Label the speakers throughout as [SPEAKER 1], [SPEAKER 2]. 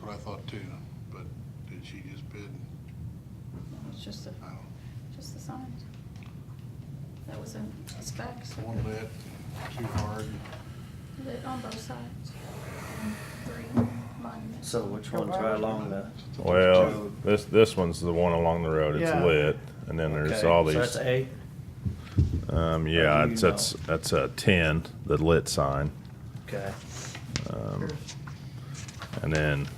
[SPEAKER 1] what I thought too, but did she just bid?
[SPEAKER 2] It's just the,
[SPEAKER 1] I don't,
[SPEAKER 2] just the signs. That was in specs.
[SPEAKER 1] one lit, too hard.
[SPEAKER 2] Lit on both sides. and Three monuments.
[SPEAKER 3] So which one's right along the,
[SPEAKER 4] Well, this, this one's the one along the road, it's
[SPEAKER 3] Yeah.
[SPEAKER 4] lit, and then there's
[SPEAKER 3] Okay,
[SPEAKER 4] all
[SPEAKER 3] so that's
[SPEAKER 4] these,
[SPEAKER 3] A?
[SPEAKER 4] um,
[SPEAKER 3] Or
[SPEAKER 4] yeah,
[SPEAKER 3] do you
[SPEAKER 4] it's, that's, that's a ten, the lit sign.
[SPEAKER 3] Okay.
[SPEAKER 4] Um, and then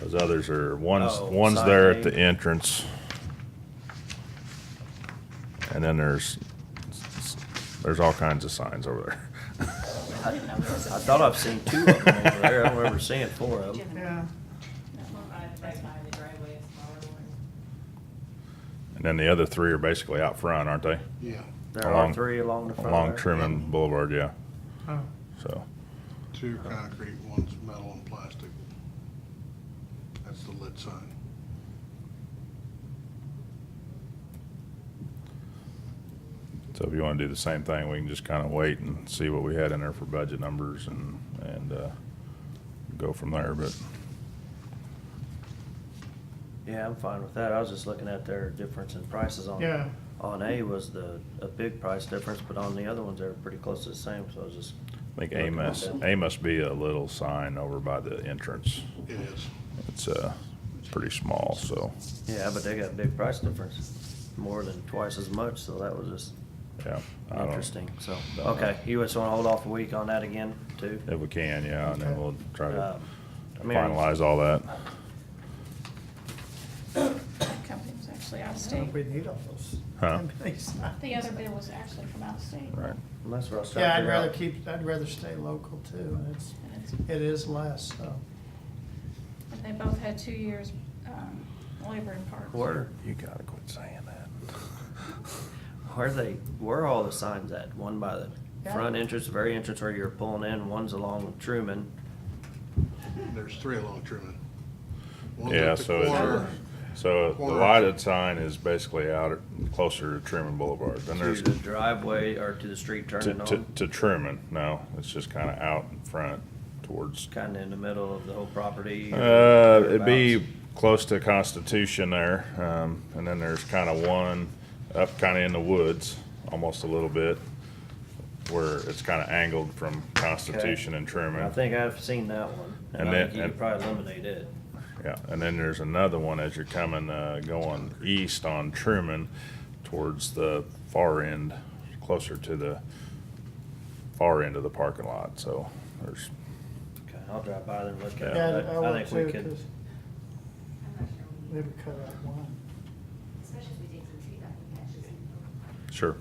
[SPEAKER 4] those others are, one's,
[SPEAKER 3] Oh,
[SPEAKER 4] one's
[SPEAKER 3] side
[SPEAKER 4] there at
[SPEAKER 3] A.
[SPEAKER 4] the entrance. And then there's, there's all kinds of signs over
[SPEAKER 2] I didn't know it was.
[SPEAKER 3] I thought I've seen two of them over there. I don't remember seeing four of them.
[SPEAKER 5] Yeah,
[SPEAKER 2] That one.
[SPEAKER 6] Right, right by the driveway, a smaller one.
[SPEAKER 4] there. And then the other three are basically out front, aren't they?
[SPEAKER 1] Yeah,
[SPEAKER 3] There are
[SPEAKER 4] Along-
[SPEAKER 3] three along the front.
[SPEAKER 4] Along
[SPEAKER 3] there.
[SPEAKER 4] Truman Boulevard, yeah,
[SPEAKER 5] oh,
[SPEAKER 4] so.
[SPEAKER 1] two concrete, one's metal and plastic. That's the lit sign.
[SPEAKER 4] So if you wanna do the same thing, we can just kinda wait and see what we had in there for budget numbers and, and, uh, go from there, but,
[SPEAKER 3] Yeah, I'm fine with that. I was just looking at their difference in prices on.
[SPEAKER 5] yeah,
[SPEAKER 3] On A was the, a big price difference, but on the other ones, they were pretty close to the same, so I was just.
[SPEAKER 4] I think A must, A must be a little sign over by the entrance.
[SPEAKER 1] It is.
[SPEAKER 4] It's, uh, pretty small, so,
[SPEAKER 3] Yeah, but they got a big price difference, more than twice as much, so that was just
[SPEAKER 4] yeah. I don't-
[SPEAKER 3] interesting, so.
[SPEAKER 4] don't know.
[SPEAKER 3] Okay, you just wanna hold off a week on that again, too?
[SPEAKER 4] If we can, yeah, and then
[SPEAKER 5] Okay.
[SPEAKER 4] we'll try to
[SPEAKER 3] Um, I mean,
[SPEAKER 4] finalize all that.
[SPEAKER 2] That company was actually out of
[SPEAKER 5] I don't know
[SPEAKER 2] state.
[SPEAKER 5] if we need all those.
[SPEAKER 4] Huh.
[SPEAKER 2] The other bid was actually from out of state.
[SPEAKER 4] Right,
[SPEAKER 3] And That's what I was trying to
[SPEAKER 5] Yeah, I'd
[SPEAKER 3] figure
[SPEAKER 5] rather
[SPEAKER 3] out.
[SPEAKER 5] keep, I'd rather stay local too, and it's,
[SPEAKER 2] And it's,
[SPEAKER 5] it is less, so.
[SPEAKER 2] and they both had two years, um, labor in parks.
[SPEAKER 3] Where,
[SPEAKER 4] you gotta quit saying that.
[SPEAKER 3] where they, where are all the signs at? One by the
[SPEAKER 5] Yeah.
[SPEAKER 3] front entrance, the very entrance where you're pulling in, one's along Truman.
[SPEAKER 1] There's three along Truman. One's at
[SPEAKER 4] Yeah,
[SPEAKER 1] the
[SPEAKER 4] so,
[SPEAKER 1] corner,
[SPEAKER 4] it- so the
[SPEAKER 1] Corner.
[SPEAKER 4] lighted sign is basically out at- closer to Truman Boulevard, then
[SPEAKER 3] To
[SPEAKER 4] there's.
[SPEAKER 3] the driveway or to the street
[SPEAKER 4] To,
[SPEAKER 3] turning
[SPEAKER 4] to,
[SPEAKER 3] on,
[SPEAKER 4] to Truman, no, it's just kinda out in front towards,
[SPEAKER 3] kinda in the middle of the whole property. or
[SPEAKER 4] uh, it'd be
[SPEAKER 3] thereabouts.
[SPEAKER 4] close to Constitution there, um, and then there's kinda one up kinda in the woods, almost a little bit, where it's kinda angled from Constitution and Truman.
[SPEAKER 3] I think I've seen that one, and
[SPEAKER 4] And
[SPEAKER 3] I
[SPEAKER 4] then-
[SPEAKER 3] think you could
[SPEAKER 4] and-
[SPEAKER 3] probably eliminate it.
[SPEAKER 4] Yeah, and then there's another one as you're coming, uh, going east on Truman towards the far end, closer to the far end of the parking lot, so there's,
[SPEAKER 3] Okay, I'll drive by there and look at
[SPEAKER 4] Yeah,
[SPEAKER 3] it,
[SPEAKER 5] Yeah, I
[SPEAKER 3] but I
[SPEAKER 5] would
[SPEAKER 3] think we
[SPEAKER 5] too,
[SPEAKER 3] could,
[SPEAKER 5] because
[SPEAKER 6] I'm not sure we,
[SPEAKER 5] they would cut out one.
[SPEAKER 6] especially if we dig some tree back and catch it.
[SPEAKER 4] sure,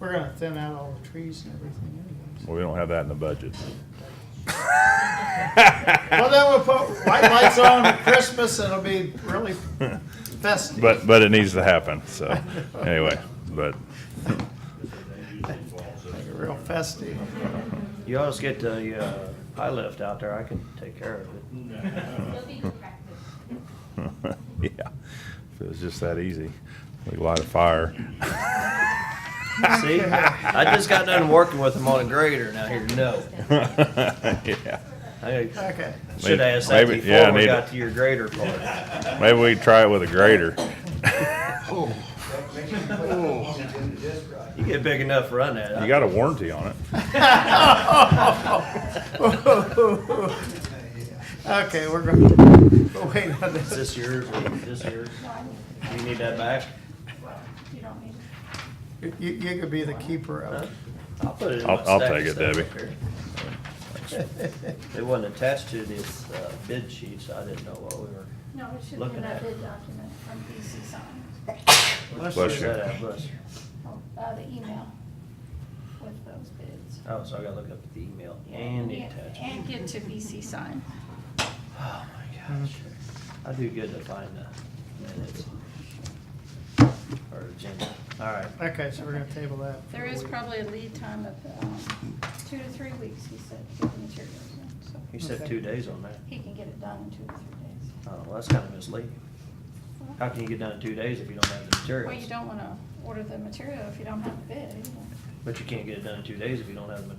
[SPEAKER 5] We're gonna thin out all the trees and everything anyways.
[SPEAKER 4] well, we don't have that in the budget.
[SPEAKER 5] Well, then we'll put white lights on at Christmas, and it'll be really festive.
[SPEAKER 4] But, but it needs to happen, so, anyway, but,
[SPEAKER 5] Make it real festive.
[SPEAKER 3] you always get the, uh, high lift out there, I can take care of it.
[SPEAKER 6] It'll be good practice.
[SPEAKER 4] yeah, if it was just that easy, we'd light a fire.
[SPEAKER 3] See, I just got done working with them on a grader, now here, no.
[SPEAKER 4] Yeah,
[SPEAKER 3] I
[SPEAKER 5] Okay,
[SPEAKER 3] should
[SPEAKER 4] Maybe-
[SPEAKER 3] ask that
[SPEAKER 4] maybe- yeah, I
[SPEAKER 3] before we
[SPEAKER 4] need
[SPEAKER 3] got
[SPEAKER 4] it.
[SPEAKER 3] to your grader part.
[SPEAKER 4] maybe we could try it with a grater.
[SPEAKER 1] Oh, oh,
[SPEAKER 3] You get big enough, run that.
[SPEAKER 4] You got a warranty on it.
[SPEAKER 5] okay, we're gonna, wait on
[SPEAKER 3] Is
[SPEAKER 5] this.
[SPEAKER 3] this yours or this yours?
[SPEAKER 2] No, I need-
[SPEAKER 3] Do you need that back?
[SPEAKER 2] you don't need it.
[SPEAKER 5] You, you could be the keeper of
[SPEAKER 3] Huh?
[SPEAKER 5] it.
[SPEAKER 3] I'll put it in
[SPEAKER 4] I'll-
[SPEAKER 3] my
[SPEAKER 4] I'll
[SPEAKER 3] stack
[SPEAKER 4] take
[SPEAKER 3] of
[SPEAKER 4] it,
[SPEAKER 3] stuff up here. It wasn't attached to this uh, bid sheet, so I didn't know what we were.
[SPEAKER 2] No, it should be
[SPEAKER 3] Looking
[SPEAKER 2] in that
[SPEAKER 3] at it.
[SPEAKER 2] bid document from BC Signs.
[SPEAKER 3] Bless
[SPEAKER 4] Bless you.
[SPEAKER 3] Bless you.
[SPEAKER 2] Uh, the email with those bids.
[SPEAKER 3] Oh, so I gotta look up the email and the
[SPEAKER 2] Yeah,
[SPEAKER 3] attachment.
[SPEAKER 2] And get to BC sign.
[SPEAKER 3] Oh, my gosh. I do good to find the minutes. Or agenda. All right.
[SPEAKER 5] Okay, so we're gonna table that. for
[SPEAKER 2] There
[SPEAKER 5] a
[SPEAKER 2] is
[SPEAKER 5] week.
[SPEAKER 2] probably a lead time of, um, two to three weeks, he said, to get the materials in, so
[SPEAKER 3] You said
[SPEAKER 5] Okay.
[SPEAKER 3] two days on that.
[SPEAKER 2] he can get it done in two to three days.
[SPEAKER 3] Oh, well, that's kind of misleading. How can you get done in two days if you don't have the
[SPEAKER 2] Well, you
[SPEAKER 3] materials?
[SPEAKER 2] don't wanna order the material if you don't have the bid. you know.
[SPEAKER 3] But you can't get it done in two days if you don't have the materials.